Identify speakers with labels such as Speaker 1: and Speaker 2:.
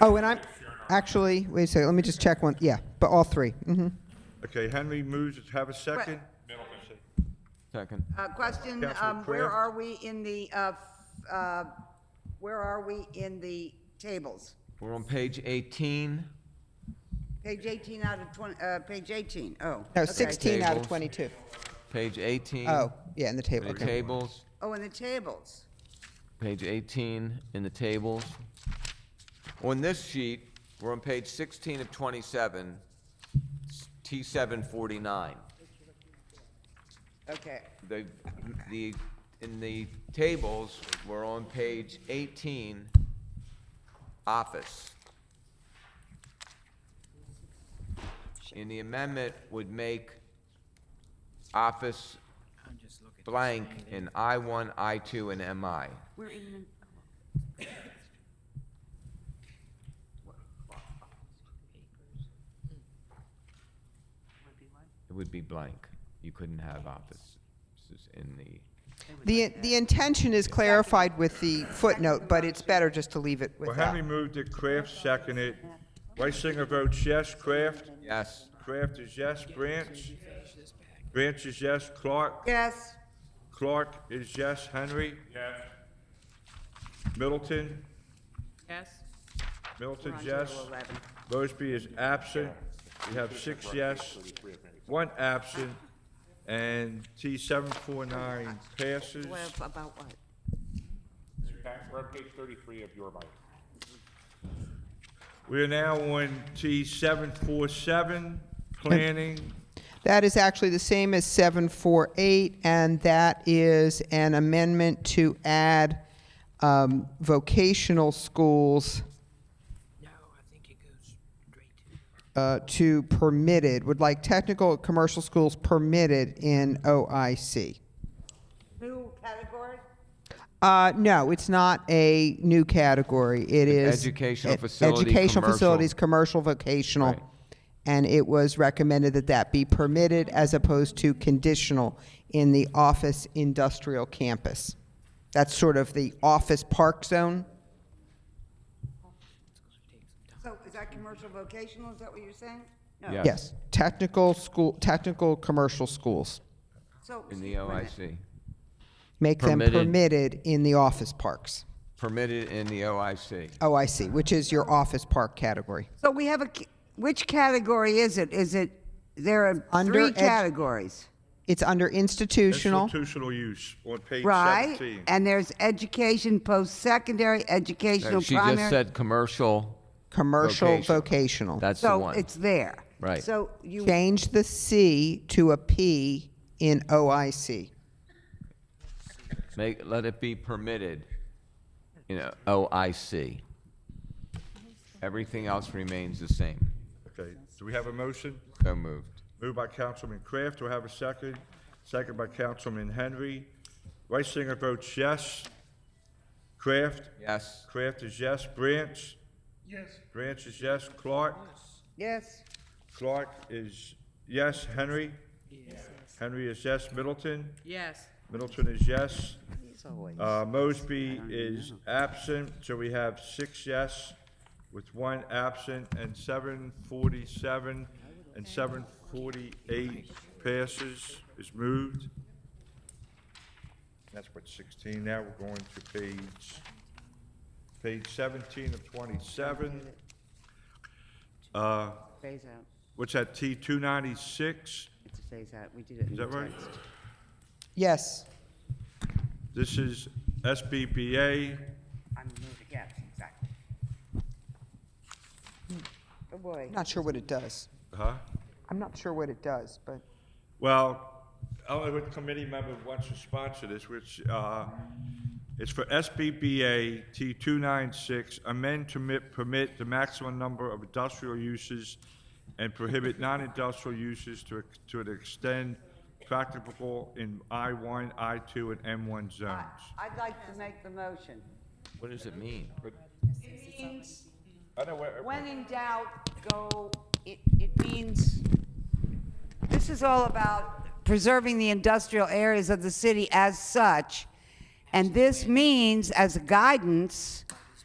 Speaker 1: Oh, and I'm, actually, wait a second, let me just check one, yeah, but all three, mm-hmm.
Speaker 2: Okay, Henry moves, to have a second.
Speaker 3: Second.
Speaker 4: Uh, Question,
Speaker 2: Councilor
Speaker 4: um, where
Speaker 2: Craft?
Speaker 4: are we in the, uh, f- uh, where are we in the tables?
Speaker 3: We're on page 18.
Speaker 4: Page 18 out of 20, uh, page 18, oh.
Speaker 1: No,
Speaker 4: okay.
Speaker 1: 16 out of
Speaker 3: Tables.
Speaker 1: 22.
Speaker 3: Page 18.
Speaker 1: Oh, yeah, in the table,
Speaker 3: The
Speaker 1: okay.
Speaker 3: tables.
Speaker 4: Oh, in the tables.
Speaker 3: Page 18 in the tables. On this sheet, we're on page 16 of 27, T749.
Speaker 4: Okay,
Speaker 3: The, the, in the tables, we're on page 18, office. And the amendment would make office blank in I1, I2, and MI.
Speaker 5: We're in,
Speaker 3: It would be blank. You couldn't have office s- in the,
Speaker 1: The, the intention is clarified with the footnote, but it's better just to leave it
Speaker 2: Well,
Speaker 1: with
Speaker 2: Henry
Speaker 1: that.
Speaker 2: moved it, Kraft seconded. Reisinger votes yes, Kraft.
Speaker 3: yes,
Speaker 2: Kraft is yes, Branch. Branch is yes, Clark.
Speaker 4: yes,
Speaker 2: Clark is yes, Henry. Yes. Middleton,
Speaker 5: yes,
Speaker 2: Middleton's
Speaker 4: zero
Speaker 2: yes.
Speaker 4: eleven.
Speaker 2: Mosby is absent. We have six yes, one absent, and T seven four nine passes.
Speaker 5: Well, about what?
Speaker 6: We're on page 33 of your bike.
Speaker 2: We are now on T seven four seven, planning.
Speaker 1: That is actually the same as 748, and that is an amendment to add um, vocational schools
Speaker 7: No, I think it goes straight to.
Speaker 1: uh, to permitted, would like technical commercial schools permitted in OIC.
Speaker 4: New category?
Speaker 1: Uh, no, it's not a new category. It is
Speaker 3: educational
Speaker 1: e-
Speaker 3: facility,
Speaker 1: educational
Speaker 3: commercial.
Speaker 1: facilities, commercial, vocational,
Speaker 3: Right.
Speaker 1: and it was recommended that that be permitted as opposed to conditional in the office industrial campus. That's sort of the office park zone.
Speaker 4: So is that commercial vocational, is that what you're saying? No.
Speaker 3: yes.
Speaker 1: Yes, technical school, technical commercial schools.
Speaker 4: So.
Speaker 3: In the
Speaker 4: wait a minute.
Speaker 3: OIC.
Speaker 1: Make
Speaker 3: Permitted.
Speaker 1: them permitted in the office parks.
Speaker 3: Permitted in the OIC.
Speaker 1: Oh, I see, which is your office park category.
Speaker 4: So we have a, c- which category is it? Is it, there are
Speaker 1: Under
Speaker 4: three
Speaker 1: edu-
Speaker 4: categories,
Speaker 1: It's under institutional.
Speaker 2: Institutional use on page
Speaker 4: right?
Speaker 2: seventeen.
Speaker 4: And there's education, post-secondary, educational,
Speaker 3: No, She just
Speaker 4: primary.
Speaker 3: said commercial,
Speaker 1: commercial
Speaker 3: Vocational.
Speaker 1: vocational.
Speaker 3: that's the
Speaker 4: So
Speaker 3: one.
Speaker 4: it's there.
Speaker 3: Right.
Speaker 4: So you
Speaker 1: Change the C to a P in OIC.
Speaker 3: Make, let it be permitted, you know, OIC. Everything else remains the same.
Speaker 2: Okay, do we have a motion?
Speaker 3: So moved.
Speaker 2: Moved by Councilman Kraft, do I have a second? Second by Councilman Henry. Reisinger votes yes. Kraft?
Speaker 3: Yes,
Speaker 2: Kraft is yes. Branch? Yes. Branch is yes. Clark?
Speaker 4: Yes,
Speaker 2: Clark is yes. Henry? Henry is yes. Middleton?
Speaker 5: Yes.
Speaker 2: Middleton is yes. Uh, Mosby is absent, so we have six yes with one absent, and seven forty-seven and seven forty-eight passes is moved. That's what sixteen, now we're going to page, page seventeen of twenty-seven. Uh,
Speaker 4: phase out.
Speaker 2: what's that, T two ninety-six?
Speaker 4: It's a phase out. We did it in
Speaker 2: Is
Speaker 4: the
Speaker 2: that right?
Speaker 4: text.
Speaker 1: Yes.
Speaker 2: This is SBBA.
Speaker 4: I'm moving, yes, exactly. Oh, boy.
Speaker 1: I'm not sure what it does.
Speaker 2: Huh?
Speaker 1: I'm not sure what it does, but
Speaker 2: Well, only what committee member wants to sponsor this, which, uh, it's for SBBA T two nine six, amend to permit, permit the maximum number of industrial uses and prohibit non-industrial uses to, ex- to an extent practicable in I one, I two, and M one zones.
Speaker 4: I'd like to make the motion.
Speaker 3: what does it mean?
Speaker 5: It means,
Speaker 2: I know where-
Speaker 5: when in doubt, go, it, it means,
Speaker 4: This is all about preserving the industrial areas of the city as such. And this means, as a guidance,